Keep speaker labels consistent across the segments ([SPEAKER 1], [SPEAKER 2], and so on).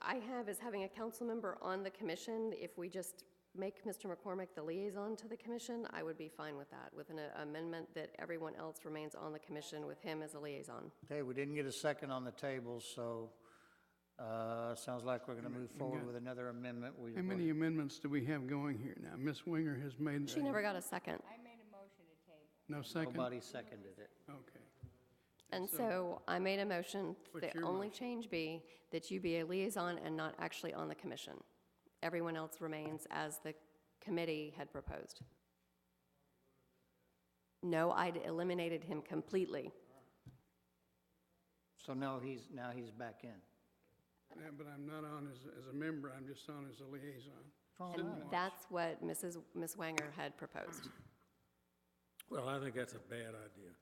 [SPEAKER 1] I have is having a council member on the commission. If we just make Mr. McCormick the liaison to the commission, I would be fine with that, with an amendment that everyone else remains on the commission with him as a liaison.
[SPEAKER 2] Okay, we didn't get a second on the table, so, uh, sounds like we're gonna move forward with another amendment. We-
[SPEAKER 3] How many amendments do we have going here now? Ms. Winger has made,
[SPEAKER 1] She never got a second.
[SPEAKER 4] I made a motion to table.
[SPEAKER 3] no second?
[SPEAKER 2] Nobody seconded it.
[SPEAKER 3] Okay.
[SPEAKER 1] And so I made a motion,
[SPEAKER 3] What's
[SPEAKER 1] the
[SPEAKER 3] your
[SPEAKER 1] only
[SPEAKER 3] motion?
[SPEAKER 1] change be that you be a liaison and not actually on the commission. Everyone else remains as the committee had proposed. No, I'd eliminated him completely.
[SPEAKER 2] So now he's, now he's back in.
[SPEAKER 3] Yeah, but I'm not on as, as a member, I'm just on as a liaison.
[SPEAKER 2] Wrong
[SPEAKER 5] Oh,
[SPEAKER 3] Sitting
[SPEAKER 2] line.
[SPEAKER 3] watch.
[SPEAKER 1] That's what Mrs., Ms. Wanger had proposed.
[SPEAKER 5] Well, I think that's a bad idea.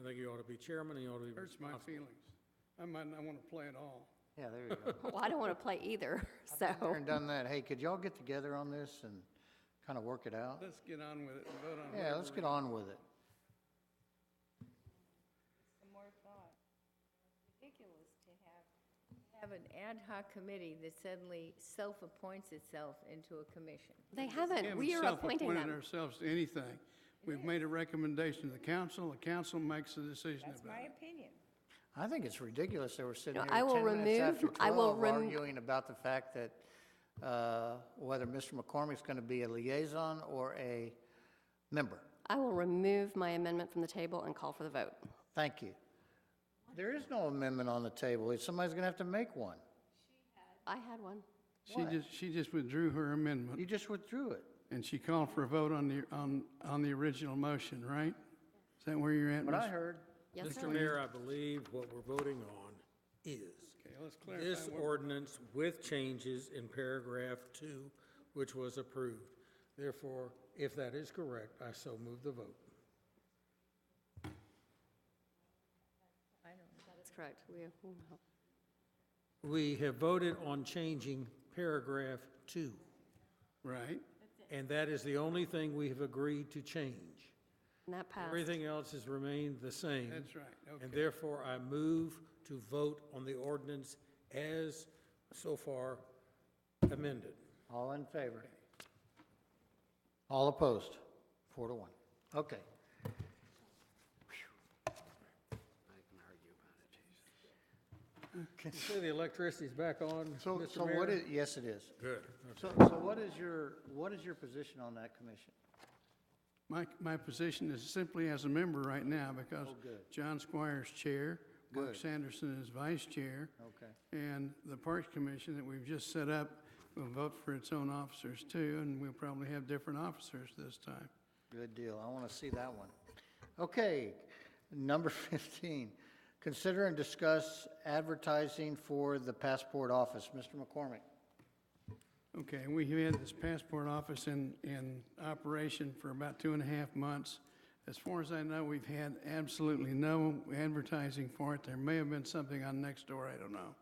[SPEAKER 5] I think you ought to be chairman, and you ought to be
[SPEAKER 3] Hurts my
[SPEAKER 5] responsible.
[SPEAKER 3] feelings. I might not want to play at all.
[SPEAKER 2] Yeah, there you go.
[SPEAKER 1] Well, I don't want to play either, so.
[SPEAKER 2] Aaron done that. Hey, could y'all get together on this and kind of work it out?
[SPEAKER 3] Let's get on with it and vote on it.
[SPEAKER 2] Yeah, let's get on with it.
[SPEAKER 4] Some more thought. Ridiculous to have, have an ad hoc committee that suddenly self-appoints itself into a commission.
[SPEAKER 1] They
[SPEAKER 3] Yeah,
[SPEAKER 1] haven't,
[SPEAKER 3] we
[SPEAKER 1] we are appointing
[SPEAKER 3] self-appointed
[SPEAKER 1] them.
[SPEAKER 3] ourselves to anything. We've made a recommendation to the council, the council makes a decision
[SPEAKER 4] That's my
[SPEAKER 3] about it.
[SPEAKER 4] opinion.
[SPEAKER 2] I think it's ridiculous that we're sitting
[SPEAKER 1] No,
[SPEAKER 2] here
[SPEAKER 1] I will
[SPEAKER 2] 10 minutes after
[SPEAKER 1] remove- I will
[SPEAKER 2] 12
[SPEAKER 1] rem-
[SPEAKER 2] arguing about the fact that uh, whether Mr. McCormick's going to be a liaison or a member.
[SPEAKER 1] I will remove my amendment from the table and call for the vote.
[SPEAKER 2] Thank you. There is no amendment on the table. It's- Somebody's going to have to make one.
[SPEAKER 1] I had one.
[SPEAKER 3] She just, she just withdrew her amendment,
[SPEAKER 2] You just withdrew it.
[SPEAKER 3] and she called for a vote on the, on, on the original motion, right? Is that where you're at,
[SPEAKER 2] What I
[SPEAKER 3] Ms.?
[SPEAKER 2] heard,
[SPEAKER 1] Yes,
[SPEAKER 5] Mr.
[SPEAKER 1] sir.
[SPEAKER 5] Mayor, I believe what we're voting on is
[SPEAKER 3] Okay, let's clarify.
[SPEAKER 5] this
[SPEAKER 3] what-
[SPEAKER 5] ordinance with changes in paragraph two, which was approved. Therefore, if that is correct, I so move the vote.
[SPEAKER 4] I don't know.
[SPEAKER 1] That's correct. We,
[SPEAKER 5] We have voted on changing paragraph two,
[SPEAKER 3] Right,
[SPEAKER 5] and that is the only thing we have agreed to change.
[SPEAKER 1] and that passed.
[SPEAKER 5] Everything else has remained the same.
[SPEAKER 3] that's right, okay.
[SPEAKER 5] And therefore, I move to vote on the ordinance as so far amended.
[SPEAKER 2] all in favor? All opposed? Four to one. Okay.
[SPEAKER 5] You say the electricity's back on,
[SPEAKER 2] So,
[SPEAKER 5] Mr.
[SPEAKER 2] so what
[SPEAKER 5] Mayor?
[SPEAKER 2] is, yes, it is.
[SPEAKER 5] Good.
[SPEAKER 2] So, so what is your, what is your position on that commission?
[SPEAKER 3] My, my position is simply as a member right now because
[SPEAKER 2] Oh, good.
[SPEAKER 3] John Squire's chair, Mark
[SPEAKER 2] Good.
[SPEAKER 3] Sanderson is vice chair.
[SPEAKER 2] Okay.
[SPEAKER 3] And the Parks Commission that we've just set up will vote for its own officers too, and we'll probably have different officers this time.
[SPEAKER 2] Good deal. I want to see that one. Okay, number 15, consider and discuss advertising for the passport office. Mr. McCormick?
[SPEAKER 3] Okay, we had this passport office in, in operation for about two and a half months. As far as I know, we've had absolutely no advertising for it. There may have been something on Nextdoor, I don't know.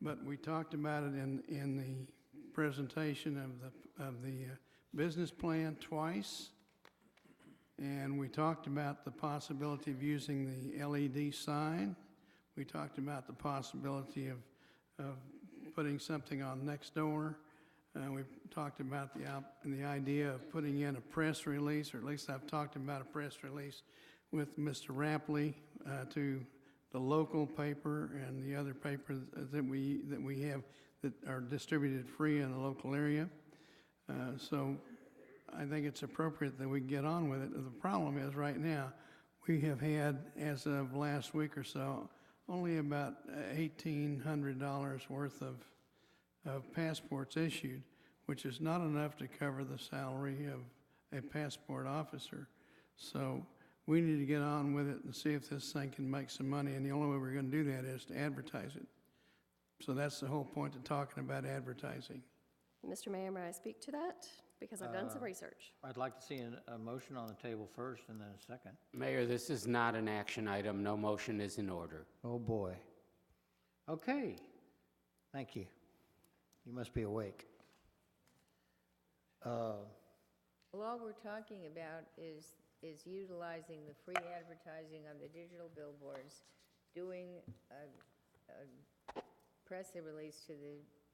[SPEAKER 3] But we talked about it in, in the presentation of the, of the uh, business plan twice. And we talked about the possibility of using the LED sign. We talked about the possibility of, of putting something on next door. Uh, we talked about the, op- the idea of putting in a press release, or at least I've talked about a press release with Mr. Rapley, uh, to the local paper and the other papers that we, that we have that are distributed free in the local area. Uh, So I think it's appropriate that we get on with it. The problem is, right now, we have had, as of last week or so, only about $1,800 worth of, of passports issued, which is not enough to cover the salary of a passport officer. So we need to get on with it and see if this thing can make some money, and the only way we're going to do that is to advertise it. So that's the whole point of talking about advertising.
[SPEAKER 1] Mr. Mayor, may I speak to that? Because I've
[SPEAKER 5] Uh,
[SPEAKER 1] done some research.
[SPEAKER 2] I'd like to see a, a motion on the table first and then a second.
[SPEAKER 6] Mayor, this is not an action item. No motion is in order.
[SPEAKER 2] Oh, boy. Okay, thank you. You must be awake. Uh,
[SPEAKER 4] Well, all we're talking about is, is utilizing the free advertising on the digital billboards, doing a, a press release to the